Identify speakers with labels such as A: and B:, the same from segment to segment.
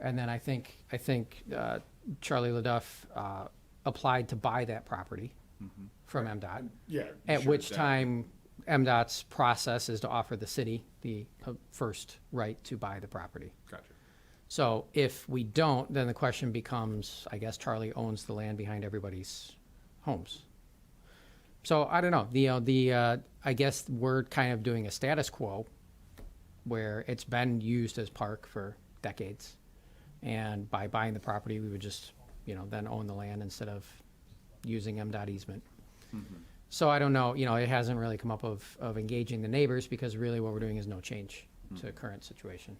A: And then I think, I think uh, Charlie LaDuff uh, applied to buy that property from MDOT.
B: Yeah.
A: At
B: sure,
A: which
B: that-
A: time MDOT's process is to offer the city the uh, first right to buy the property.
B: Gotcha.
A: So if we don't, then the question becomes, I guess Charlie owns the land behind everybody's homes. So I don't know, the, uh, the, uh, I guess we're kind of doing a status quo where it's been used as park for decades. And by buying the property, we would just, you know, then own the land instead of using MDOT easement. So I don't know, you know, it hasn't really come up of, of engaging the neighbors because really what we're doing is no change to current situation.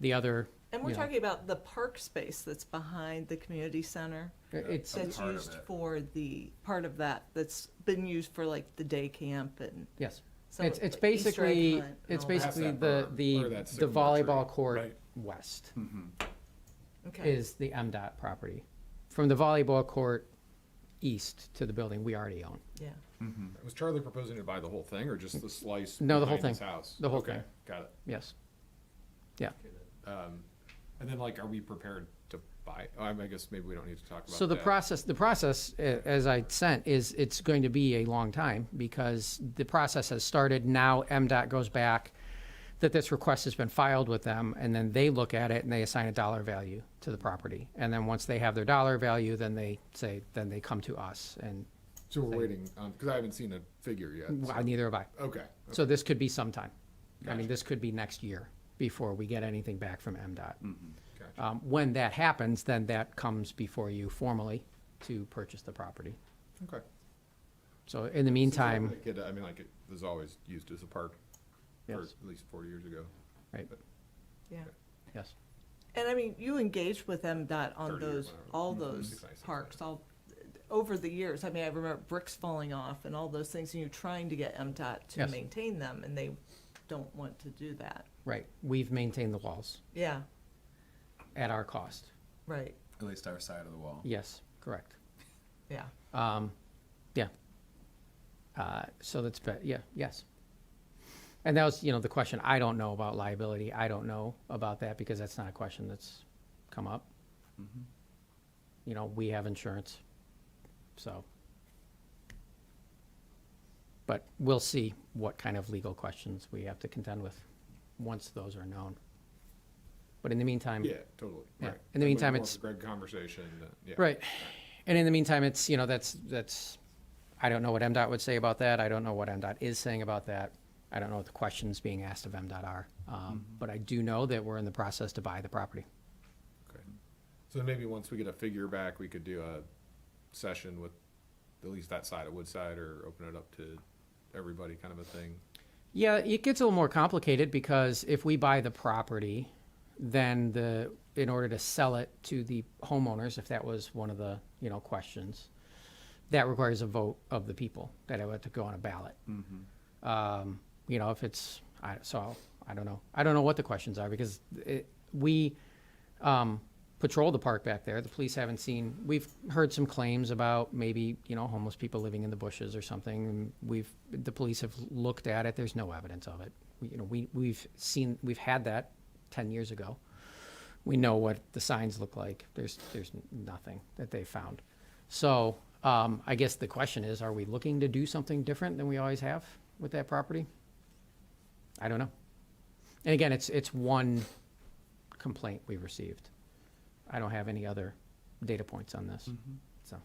A: The other.
C: And we're
A: you know,
C: talking about the park space that's behind the community center.
A: It's,
C: That's
B: part of
C: used
B: it.
C: for the, part of that, that's been used for like the day camp and
A: yes.
C: some
A: It's,
C: of
A: it's
C: the Easter egg
A: basically,
C: hunt and
A: it's
C: all that.
B: Past
A: basically
B: that
A: the,
B: berm,
A: the,
B: or that
A: the
B: sycamore
A: volleyball
B: tree.
A: court
B: Right. Hmm.
A: west
C: Okay.
A: is the MDOT property. From the volleyball court east to the building we already own.
C: Yeah,
B: Was Charlie proposing to buy the whole thing or just the slice?
A: No, the whole
B: behind his
A: thing.
B: house?
A: The whole
B: Okay,
A: thing.
B: Got it.
A: Yes. Yeah.
B: And then like, are we prepared to buy? Oh, I mean, I guess maybe we don't need to talk about that.
A: So the process, the process, a- as I sent, is it's going to be a long time because the process has started. Now MDOT goes back that this request has been filed with them and then they look at it and they assign a dollar value to the property. And then once they have their dollar value, then they say, then they come to us and
B: So we're waiting, um, cause I haven't seen a figure yet. so-
A: well, neither have I.
B: Okay.
A: So this could be sometime. I mean, this could be next year before we get anything back from MDOT.
B: Gotcha.
A: Um, When that happens, then that comes before you formally to purchase the property.
B: Okay.
A: So in the meantime.
B: Like it- I mean, like it was always used as a park for
A: Yes.
B: at least forty years ago.
A: Right,
C: yeah.
A: yes.
C: And I mean, you engaged with
B: 30
C: MDOT on
B: or
C: those,
B: whatever.
C: all
B: Mhm.
C: those
B: Six, nine, six,
C: parks, all, over the years. I mean, I remember bricks falling off and all those things, and you're trying to get MDOT to
A: Yes.
C: maintain them, and they don't want to do that.
A: Right, we've maintained the walls
C: Yeah,
A: at our cost.
C: right,
D: At least our side of the wall.
A: Yes, correct.
C: yeah.
A: Yeah. Uh, So that's, be- yeah, yes. And that was, you know, the question, I don't know about liability. I don't know about that because that's not a question that's come up. You know, we have insurance, so. But we'll see what kind of legal questions we have to contend with once those are known. But in the meantime.
B: Yeah, totally.
A: Yeah.
B: Right.
A: In the
B: Like
A: meantime,
B: more of
A: it's-
B: a Greg conversation, uh, yeah.
A: Right. And in the meantime, it's, you know, that's, that's, I don't know what MDOT would say about that. I don't know what MDOT is saying about that. I don't know what the questions being asked of MDOT are. Um, But I do know that we're in the process to buy the property.
B: Okay. So maybe once we get a figure back, we could do a session with at least that side of Woodside or open it up to everybody kind of a thing.
A: Yeah, it gets a little more complicated because if we buy the property, then the, in order to sell it to the homeowners, if that was one of the, you know, questions, that requires a vote of the people that it would have to go on a ballot. Um, you know, if it's, I, so I don't know. I don't know what the questions are because it, we, um, patrol the park back there. The police haven't seen, we've heard some claims about maybe, you know, homeless people living in the bushes or something. And We've, the police have looked at it. There's no evidence of it. We, you know, we, we've seen, we've had that ten years ago. We know what the signs look like. There's, there's nothing that they found. So, um, I guess the question is, are we looking to do something different than we always have with that property? I don't know. And again, it's, it's one complaint we received. I don't have any other data points on this, so.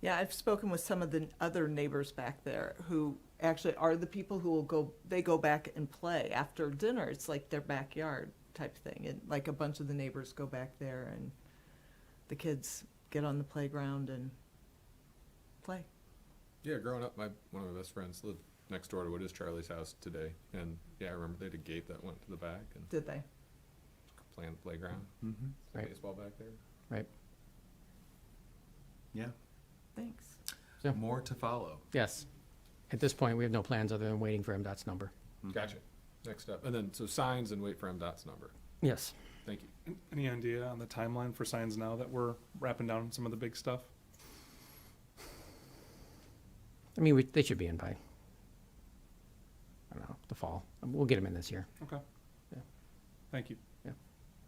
C: Yeah, I've spoken with some of the other neighbors back there who actually are the people who will go, they go back and play after dinner. It's like their backyard type thing. And like a bunch of the neighbors go back there and the kids get on the playground and play.
B: Yeah, growing up, my one of my best friends lived next door to what is Charlie's house today, and yeah, I remember they had a gate that went to the back and
C: Did they?
B: playing the playground, Is there
A: Right.
B: baseball back there.
A: Right,
D: Yeah.
C: Thanks.
A: Yeah.
D: More to follow.
A: yes. At this point, we have no plans other than waiting for MDOT's number.
B: Gotcha. Next up, and then so signs and wait for MDOT's number.
A: Yes.
B: Thank you.
E: Any idea on the timeline for signs now that we're wrapping down some of the big stuff?
A: I mean, we, they should be in by, I don't know, the fall. We'll get them in this year.
E: Okay.
A: Yeah.
E: Thank you.